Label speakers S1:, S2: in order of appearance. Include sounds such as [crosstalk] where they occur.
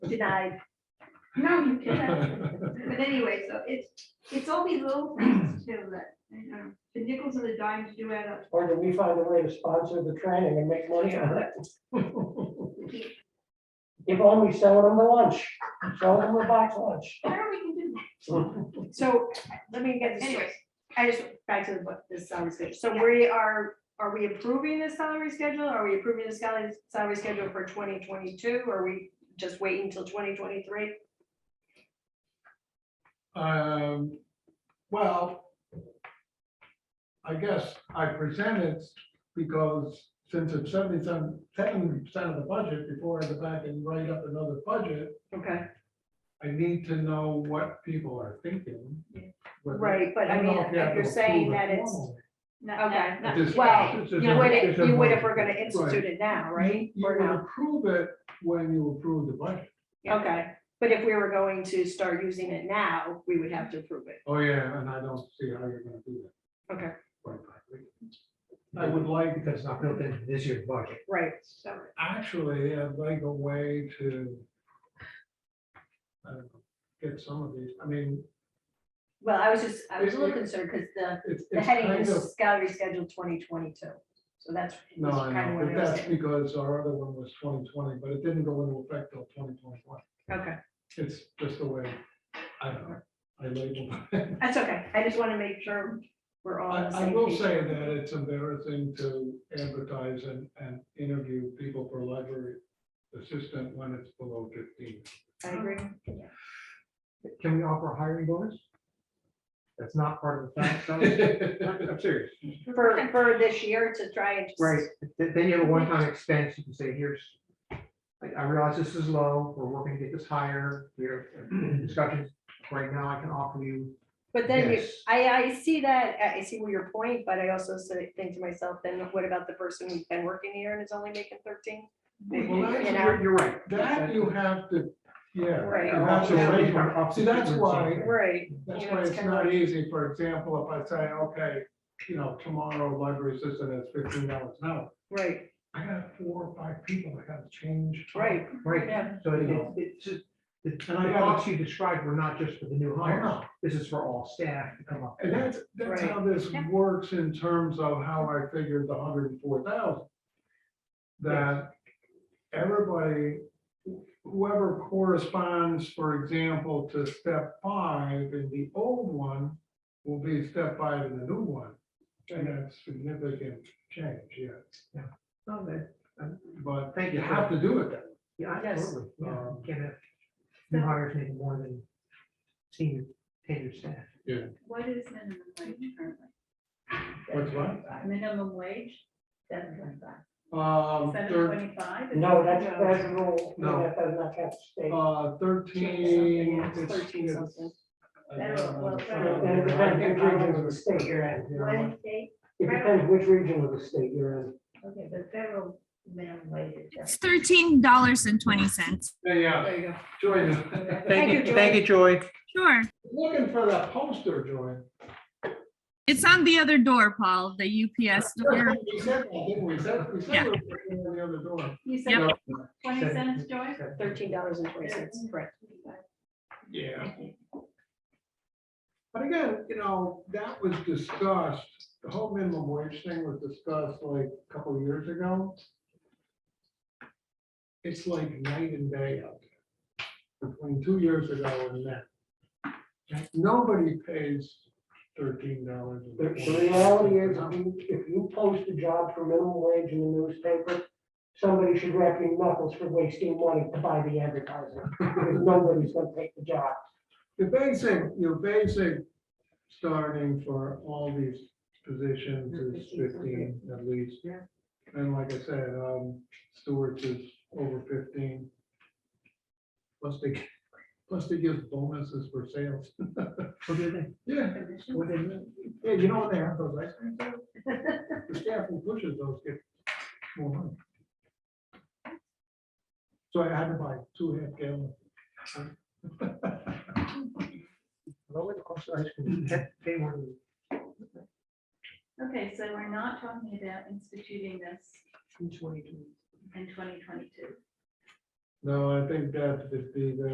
S1: denied.
S2: No, you can't.
S3: [laughs]
S2: But anyway, so it's, it's all these little things too that, you know, the nickels and the dimes do add up.
S3: Or do we find a way to sponsor the training and make money on it? [laughs] If only selling them the lunch, selling them a box lunch.
S2: [laughs] I don't know we can do
S1: So let me get
S2: that.
S1: this. straight.
S2: Anyways,
S1: I just, back to what this salary schedule, so we are, are we approving the salary schedule, are we approving the salary, salary schedule for twenty twenty-two, are we just waiting till twenty twenty-three?
S4: Um, well, I guess I present it because since it's seventy seven, ten percent of the budget, before I go back and write up another budget,
S1: Okay,
S4: I need to know what people are thinking. whether-
S1: right, but I
S4: don't
S1: mean,
S4: know if you have
S1: if you're
S4: to
S1: saying
S4: approve it
S1: that it's,
S4: formally.
S2: no,
S1: Okay.
S2: no, no.
S4: It is-
S1: well,
S4: it's a
S1: you would,
S4: different- it's a
S1: you would if
S4: different-
S1: we're gonna institute it now, right?
S4: You
S1: Or
S4: would
S1: no?
S4: approve it when you approve the budget.
S1: Okay, but if we were going to start using it now, we would have to approve it.
S4: Oh, yeah, and I don't see how you're gonna do that.
S1: Okay.
S4: Quite frankly. I would like,
S5: because it's not built into this year's budget.
S1: Right.
S2: So,
S4: actually, I'd like a way to I don't know, get some of these, I mean,
S1: Well, I was just, I was a little concerned, because the,
S4: it's,
S1: the
S4: it's
S1: heading
S4: kind of,
S1: is salary schedule twenty twenty-two, so that's
S4: no,
S1: that's
S4: I
S1: kind of
S4: know,
S1: what
S4: but
S1: I was
S4: that's
S1: saying.
S4: because our other one was twenty twenty, but it didn't go into effect till twenty twenty-one.
S1: Okay.
S4: It's just the way, I don't know, I labeled it.
S1: That's okay, I just want to make sure we're all
S4: I,
S1: on the
S4: I
S1: same
S4: will
S1: page.
S4: say that it's embarrassing to advertise and, and interview people for library assistant when it's below fifteen.
S1: I agree.
S5: Can we offer a hiring
S4: [laughs]
S5: bonus? That's not part of the tax code? I'm I'm serious.
S1: For, for this year to try and just.
S5: Right, th- then you have a one-time expense, you can say, here's, I- I realize this is low, we're working to get this higher, we're
S4: [clears throat]
S5: in discussions, right now I can offer you.
S1: But then you,
S5: this."
S1: I, I see that, I I see where your point, but I also say, think to myself, then what about the person who's been working here and is only making thirteen? [laughs]
S4: Well, that's-
S1: You know,
S5: You're you're right.
S4: That you have to, yeah.
S1: Right.
S4: you have to
S5: Yeah.
S4: wait for- See, that's why,
S1: Right,
S4: that's
S1: You know,
S4: why
S1: it's
S4: it's
S1: kinda
S4: not
S1: like-
S4: easy, for example, if I say, okay, you know, tomorrow library assistant is fifteen dollars an hour.
S1: right,
S4: I got four or five people I gotta change.
S1: right.
S5: Right,
S1: Yeah.
S5: so it-
S4: Yeah.
S5: it- it's just, the the
S4: I-
S5: costs you described were not just for the new
S4: I
S5: hires,
S4: know.
S5: this is for all staff to come up.
S4: Uh-huh. And that's, that's
S1: Right.
S4: how this
S2: Yeah.
S4: works in terms of how I figured the hundred and four thousand. That everybody, whoever corresponds, for example, to step five in the old one will be step five in the new one. And that's significant change, yeah.
S5: Yeah. No, that- uh,
S4: But
S5: Thank
S4: you
S5: you.
S4: have to do it that way.
S5: Yeah,
S1: Yes.
S5: absolutely. Yeah,
S4: Um,
S5: you Can't have new hires making more than senior, tenured staff.
S2: What is minimum wage currently?
S4: What's what?
S2: Minimum wage, seven twenty-five.
S4: Um,
S2: Seven
S4: thir-
S2: twenty-five?
S3: No, that's, that's a rule.
S4: No.
S3: That does not have to stay.
S4: uh,
S1: Thirteen something,
S4: thirteen.
S1: yeah, it's
S4: it's-
S1: thirteen
S4: it's-
S1: something.
S4: I don't know.
S2: Well,
S3: And it depends which region of the state you're in.
S2: One state,
S3: It depends which region of the state you're in.
S2: okay, but federal minimum wage is
S6: It's thirteen dollars and twenty cents.
S4: Yeah, yeah.
S1: There you go.
S4: Joy,
S2: seven.
S1: Thank you, Joy.
S5: you, Joy.
S6: Sure.
S4: [laughs] looking for that poster, Joy.
S6: It's on the other door, Paul, the UPS door.
S4: We said, that, didn't we? We said, we said we were looking for the other door.
S2: You
S6: Yep.
S2: said twenty cents, Joy?
S1: Thirteen dollars and twenty cents, correct.
S4: Yeah. But again, you know, that was discussed, the whole minimum wage thing was discussed like a couple of years ago. It's like night and day out there, between two years ago and now. Nobody pays thirteen dollars.
S3: The the reality is, if you- if you post a job for minimum wage in the newspaper, somebody should wrap your knuckles for wasting money to buy the advertising. because Nobody's gonna take the job.
S4: The basic, your basic starting for all these positions is fifteen at least.
S5: Yeah.
S4: And like I said, um, Stewart's is over fifteen. Plus they, plus they give bonuses for sales. [laughs] Yeah. what they mean. Yeah, you know what they have those ice cream sales? [laughs] The staff who pushes those get more money. So I had to buy two half [laughs] gallon.
S5: Lower the cost of ice cream, pay- pay more than.
S2: Okay, so we're not talking about instituting this in twenty twenty-two.
S4: No, I think that's fifty, then.